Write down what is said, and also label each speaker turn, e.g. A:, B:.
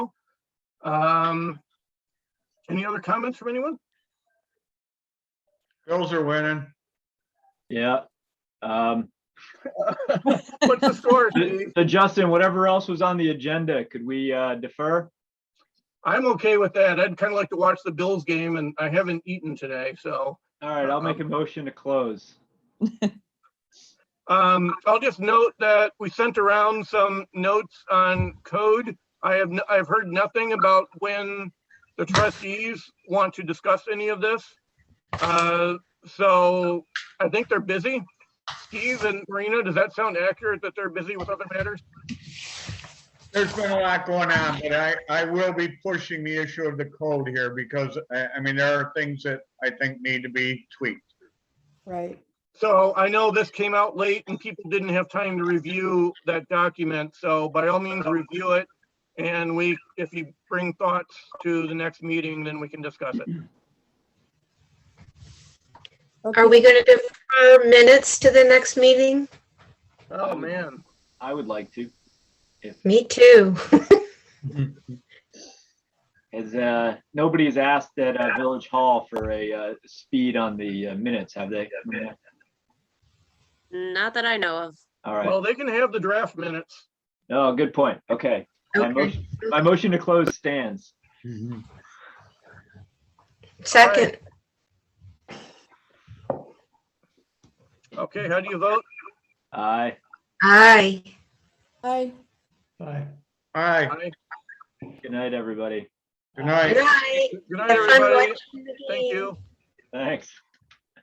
A: Um, any other comments from anyone?
B: Bills are winning.
C: Yeah. Um,
A: What's the story, Steve?
C: so Justin, whatever else was on the agenda, could we uh, defer?
A: I'm okay with that. I'd kind of like to watch the Bills game and I haven't eaten today, so.
C: All right, I'll make a motion to close.
A: Um, I'll just note that we sent around some notes on code. I have, n- I've heard nothing about when the trustees want to discuss any of this. Uh, so I think they're busy. Steve and Marina, does that sound accurate that they're busy with other matters?
B: There's been a lot going on, but I, I will be pushing the issue of the code here because I, I mean, there are things that I think need to be tweaked.
D: Right.
A: So I know this came out late and people didn't have time to review that document, so by all means, review it. And we, if you bring thoughts to the next meeting, then we can discuss it.
D: Okay.
E: Are we going to defer minutes to the next meeting?
A: Oh, man.
C: I would like to.
E: Me too.
C: As uh, nobody has asked at uh, Village Hall for a uh, speed on the uh, minutes, have they?
F: Not that I know of.
C: All right.
A: Well, they can have the draft minutes.
C: Oh, good point. Okay. My
E: Okay.
C: motion, my motion to close stands.
E: Second,
A: Okay, how do you vote?
C: Aye.
E: aye.
D: Hi.
B: All right,
A: Aye.
C: Good night, everybody.
B: good night.
E: Good night.
A: Good night,
E: Have fun
A: everybody.
E: watching the
A: Thank
E: game.
A: you.
C: Thanks.